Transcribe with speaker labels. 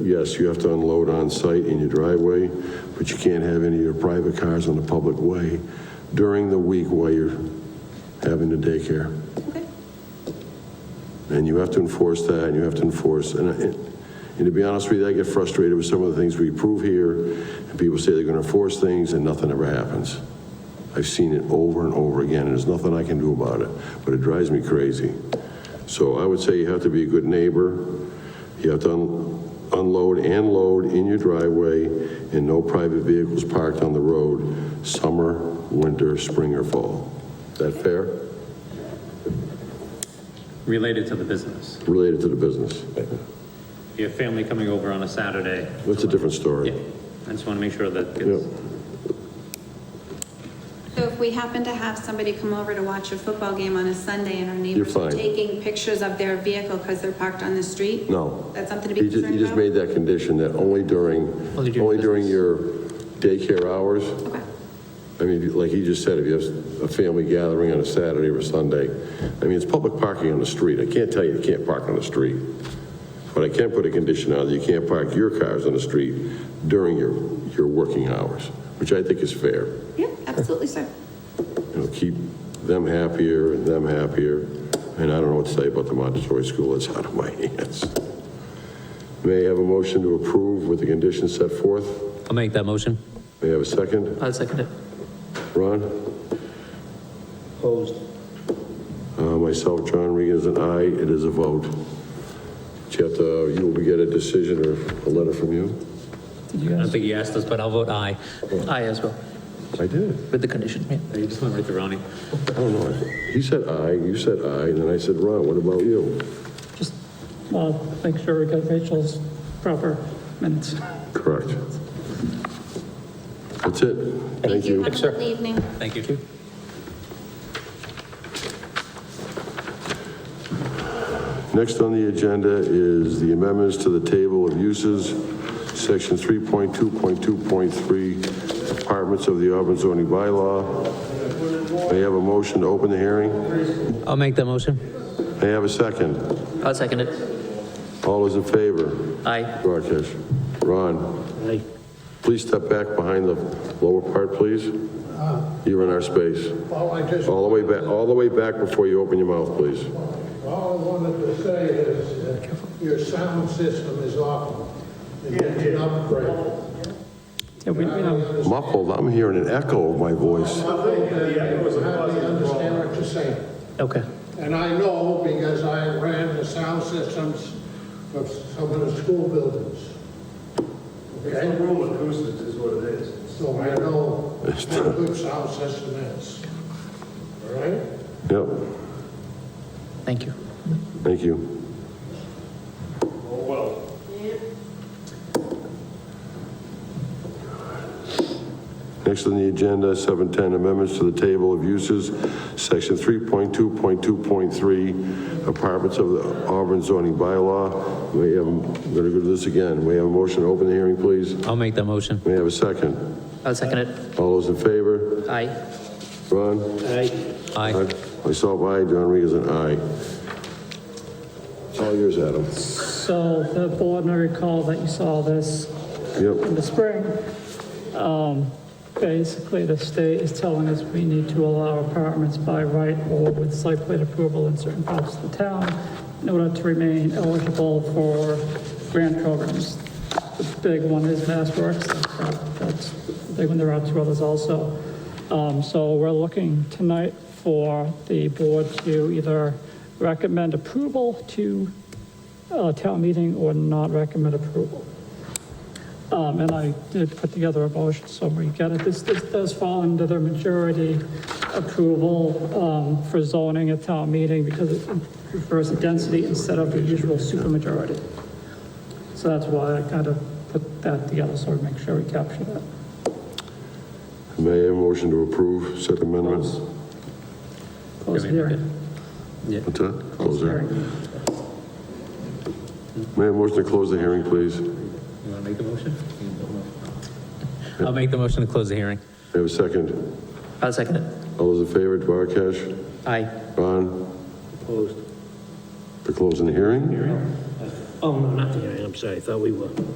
Speaker 1: Yes, you have to unload on site in your driveway, but you can't have any of your private cars on the public way during the week while you're having the daycare.
Speaker 2: Okay.
Speaker 1: And you have to enforce that, and you have to enforce, and, I- and to be honest with you, I get frustrated with some of the things we approve here, and people say they're gonna enforce things, and nothing ever happens. I've seen it over and over again, and there's nothing I can do about it, but it drives me crazy. So I would say you have to be a good neighbor, you have to un- unload and load in your driveway, and no private vehicles parked on the road, summer, winter, spring, or fall. Is that fair?
Speaker 3: related to the business.
Speaker 1: Related to the business.
Speaker 3: If you have family coming over on a Saturday,
Speaker 1: That's a different story.
Speaker 3: yeah, I just want to make sure that
Speaker 1: Yep.
Speaker 3: gets,
Speaker 2: So if we happen to have somebody come over to watch a football game on a Sunday and our neighbors
Speaker 1: You're
Speaker 2: are
Speaker 1: fine.
Speaker 2: taking pictures of their vehicle because they're parked on the street?
Speaker 1: No.
Speaker 2: That's something to be
Speaker 1: He just, he
Speaker 2: concerned
Speaker 1: just
Speaker 2: about?
Speaker 1: made that condition that only during,
Speaker 3: Only during
Speaker 1: only during
Speaker 3: business.
Speaker 1: your daycare hours.
Speaker 2: Okay,
Speaker 1: I mean, if you- like he just said, if you have a family gathering on a Saturday or a Sunday, I mean, it's public parking on the street. I can't tell you you can't park on the street. But I can put a condition out that you can't park your cars on the street during your, your working hours, which I think is fair.
Speaker 2: yeah, absolutely, sir.
Speaker 1: You know, keep them happier and them happier. And I don't know what to say about the Montessori school, it's out of my hands. May I have a motion to approve with the conditions set forth?
Speaker 4: I'll make that motion.
Speaker 1: May I have a second?
Speaker 4: I'll second it.
Speaker 1: Ron?
Speaker 5: Opposed?
Speaker 1: Uh, Myself, John Regan is an aye, it is a vote. Chapter, you will get a decision or a letter from you?
Speaker 4: I don't think you asked us, but I'll vote aye.
Speaker 5: Aye as well,
Speaker 1: I did.
Speaker 5: with the condition, yeah.
Speaker 3: you just went right to Ronnie.
Speaker 1: I don't know. He said aye, you said aye, and then I said, Ron, what about you?
Speaker 6: Just uh, make sure we got Rachel's proper minutes.
Speaker 1: Correct. That's it. Thank you.
Speaker 2: Have a good evening.
Speaker 4: Thank you.
Speaker 1: Next on the agenda is the amendments to the table of uses, section 3.2.2.3, departments of the Auburn zoning bylaw. May I have a motion to open the hearing?
Speaker 4: I'll make that motion.
Speaker 1: May I have a second?
Speaker 5: I'll second it.
Speaker 1: All those in favor?
Speaker 5: Aye.
Speaker 1: Rakesh? Ron?
Speaker 5: Aye.
Speaker 1: Please step back behind the lower part, please. You're in our space.
Speaker 7: All I just,
Speaker 1: All the way back, all the way back before you open your mouth, please.
Speaker 7: all I wanted to say is that your sound system is awful. It needs an upgrade.
Speaker 6: Yeah, we, we know,
Speaker 1: Muffled, I'm hearing an echo of my voice.
Speaker 7: I think that you hardly understand what you're saying.
Speaker 5: Okay.
Speaker 7: And I know because I ran the sound systems of some of the school buildings.
Speaker 8: It's
Speaker 7: Okay?
Speaker 8: the room acoustics is what it is.
Speaker 7: So I know what a good sound system is. All right?
Speaker 1: Yep,
Speaker 5: Thank you.
Speaker 1: thank you.
Speaker 8: Oh, well.
Speaker 1: Next on the agenda, 710 amendments to the table of uses, section 3.2.2.3, apartments of the Auburn zoning bylaw. We have, I'm going to go to this again. We have a motion to open the hearing, please.
Speaker 4: I'll make that motion.
Speaker 1: We have a second.
Speaker 5: I'll second it.
Speaker 1: All those in favor?
Speaker 5: Aye.
Speaker 1: Ron?
Speaker 5: Aye.
Speaker 4: Aye.
Speaker 1: Myself, aye. John Regan's an aye. It's all yours, Adam.
Speaker 6: so the board may recall that you saw this in
Speaker 1: Yep,
Speaker 6: the spring. Um, Basically, the state is telling us we need to allow apartments by right or with site plan approval in certain parts of the town in order to remain eligible for grant programs. The big one is Mass Works, that's- that's the big one, there are two others also. Um, So we're looking tonight for the board to either recommend approval to uh, town meeting or not recommend approval. Um, and I did put together a motion summary, got it, this, this does fall under the majority approval, um, for zoning at town meeting because it refers to density instead of the usual supermajority. So that's why I kind of put that together, so we make sure we capture that.
Speaker 1: may I have a motion to approve said amendments?
Speaker 6: Close the hearing.
Speaker 1: What's that? Close the hearing.
Speaker 6: Hearing.
Speaker 1: May I have a motion to close the hearing, please?
Speaker 3: You want to make the motion?
Speaker 4: I'll make the motion to close the hearing.
Speaker 1: May I have a second?
Speaker 5: I'll second it.
Speaker 1: All those in favor, Duarkesh?
Speaker 5: Aye.
Speaker 1: Ron? Opposed. For closing the hearing?
Speaker 3: Oh, no, not the hearing, I'm sorry, I thought we were.